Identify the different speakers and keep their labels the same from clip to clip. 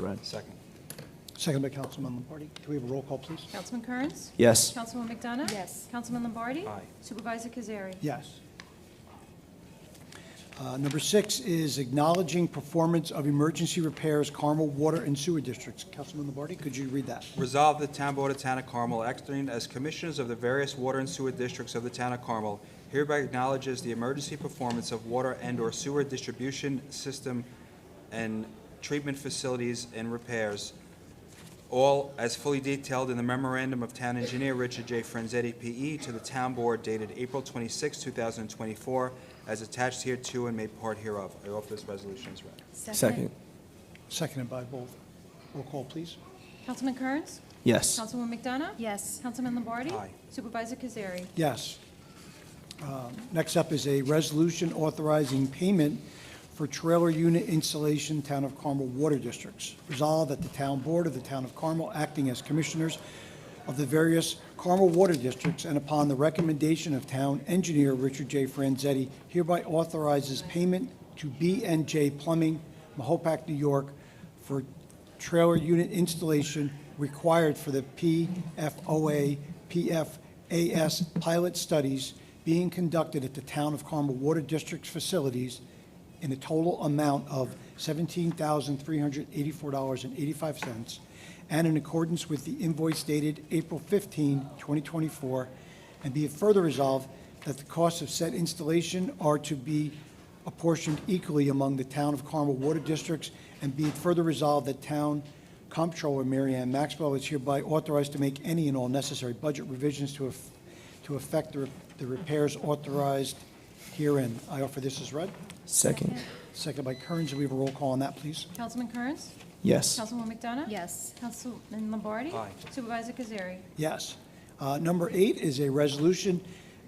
Speaker 1: Right.
Speaker 2: Second.
Speaker 3: Second by Councilman Lombardi. Can we have a roll call, please?
Speaker 4: Councilman Kearns?
Speaker 1: Yes.
Speaker 4: Councilwoman McDonough?
Speaker 5: Yes.
Speaker 4: Councilman Lombardi?
Speaker 2: Aye.
Speaker 4: Supervisor Kazari?
Speaker 3: Yes. Uh, Number six is acknowledging performance of emergency repairs Carmel Water and Sewer Districts. Councilman Lombardi, could you read that?
Speaker 2: Resolved, the Town Board of Town of Carmel, acting as commissioners of the various water and sewer districts of the Town of Carmel, hereby acknowledges the emergency performance of water and/or sewer distribution system and treatment facilities and repairs, all as fully detailed in the memorandum of Town Engineer Richard J. Franzetti, P.E., to the Town Board dated April 26, 2024, as attached hereto and made part hereof. I offer this resolution as read.
Speaker 1: Second.
Speaker 3: Seconded by both. Roll call, please.
Speaker 4: Councilman Kearns?
Speaker 1: Yes.
Speaker 4: Councilwoman McDonough?
Speaker 5: Yes.
Speaker 4: Councilman Lombardi?
Speaker 2: Aye.
Speaker 4: Supervisor Kazari?
Speaker 3: Yes. Um, Next up is a resolution authorizing payment for trailer unit installation, Town of Carmel Water Districts. Resolved that the Town Board of the Town of Carmel, acting as commissioners of the various Carmel Water Districts, and upon the recommendation of Town Engineer Richard J. Franzetti, hereby authorizes payment to b and J Plumbing, Mahopac, New York, for trailer unit installation required for the PFOA, PFAS pilot studies being conducted at the Town of Carmel Water District's facilities in a total amount of $17,384.85 and in accordance with the invoice dated April 15, 2024, and be it further resolved that the costs of said installation are to be apportioned equally among the Town of Carmel Water Districts, and be it further resolved that Town Comptroller Mary Ann Maxwell is hereby authorized to make any and all necessary budget revisions to eff- to effect the re- the repairs authorized herein. I offer this as read.
Speaker 1: Second.
Speaker 3: Seconded by Kearns. Do we have a roll call on that, please?
Speaker 4: Councilman Kearns?
Speaker 1: Yes.
Speaker 4: Councilwoman McDonough?
Speaker 5: Yes.
Speaker 4: Councilman Lombardi?
Speaker 2: Aye.
Speaker 4: Supervisor Kazari?
Speaker 3: Yes. Uh, Number eight is a resolution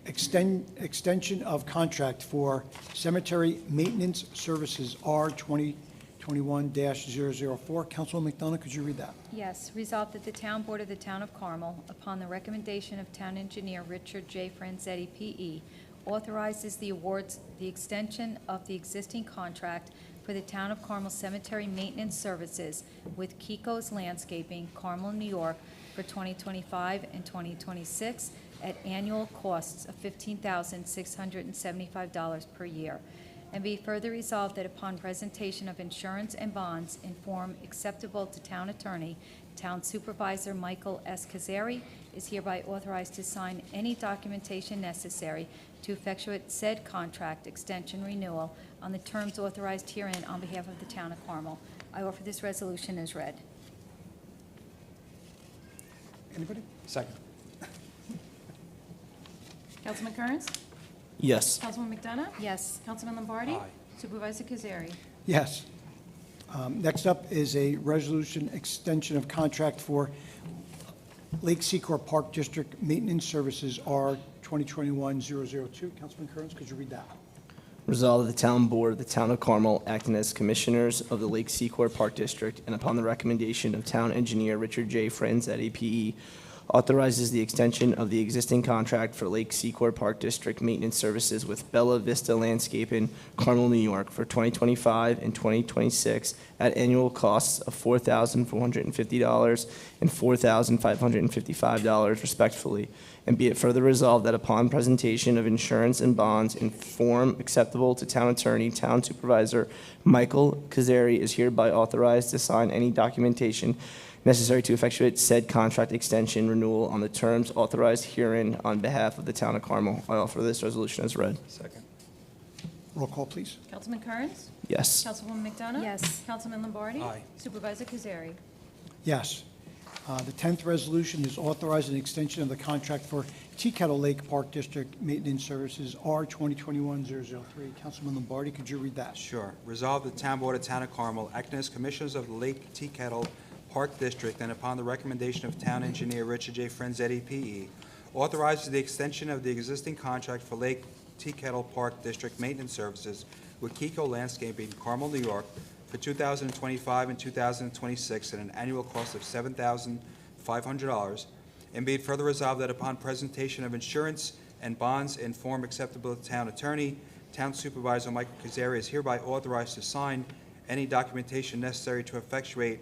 Speaker 3: extend, extension of contract for cemetery maintenance services, R 2021-004. Councilwoman McDonough, could you read that?
Speaker 5: Yes, resolved that the Town Board of the Town of Carmel, upon the recommendation of Town Engineer Richard J. Franzetti, P.E., authorizes the awards, the extension of the existing contract for the Town of Carmel Cemetery Maintenance Services with Kiko's Landscaping, Carmel, New York, for 2025 and 2026 at annual costs of $15,675 per year. And be further resolved that upon presentation of insurance and bonds in form acceptable to town attorney, town supervisor Michael S. Kazari is hereby authorized to sign any documentation necessary to effectuate said contract extension renewal on the terms authorized herein on behalf of the town of Carmel. I offer this resolution as read.
Speaker 3: Anybody?
Speaker 2: Second.
Speaker 4: Councilman Kearns?
Speaker 1: Yes.
Speaker 4: Councilwoman McDonough?
Speaker 5: Yes.
Speaker 4: Councilman Lombardi?
Speaker 2: Aye.
Speaker 4: Supervisor Kazari?
Speaker 3: Yes. Um, Next up is a resolution extension of contract for Lake Secor Park District Maintenance Services, R 2021-002. Councilman Kearns, could you read that?
Speaker 1: Resolved that the Town Board of the Town of Carmel, acting as commissioners of the Lake Secor Park District, and upon the recommendation of Town Engineer Richard J. Friends at APE, authorizes the extension of the existing contract for Lake Secor Park District Maintenance Services with Bella Vista Landscaping, Carmel, New York, for 2025 and 2026 at annual costs of $4,450 and $4,555 respectfully, and be it further resolved that upon presentation of insurance and bonds in form acceptable to town attorney, town supervisor, Michael Kazari is hereby authorized to sign any documentation necessary to effectuate said contract extension renewal on the terms authorized herein on behalf of the town of Carmel. I offer this resolution as read.
Speaker 2: Second.
Speaker 3: Roll call, please.
Speaker 4: Councilman Kearns?
Speaker 1: Yes.
Speaker 4: Councilwoman McDonough?
Speaker 5: Yes.
Speaker 4: Councilman Lombardi?
Speaker 2: Aye.
Speaker 4: Supervisor Kazari?
Speaker 3: Yes. Uh, The 10th resolution is authorizing an extension of the contract for Teakettle Lake Park District Maintenance Services, R 2021-003. Councilman Lombardi, could you read that?
Speaker 2: Sure. Resolve the Town Board of Town of Carmel, acting as commissioners of the Lake Teakettle Park District, and upon the recommendation of Town Engineer Richard J. E Franzetti, P.E., authorizes the extension of the existing contract for Lake Teakettle Park District Maintenance Services with Kiko Landscaping, Carmel, New York, for 2025 and 2026 at an annual cost of $7,500, and be it further resolved that upon presentation of insurance and bonds in form acceptable to town attorney, town supervisor Michael Kazari is hereby authorized to sign any documentation necessary to effectuate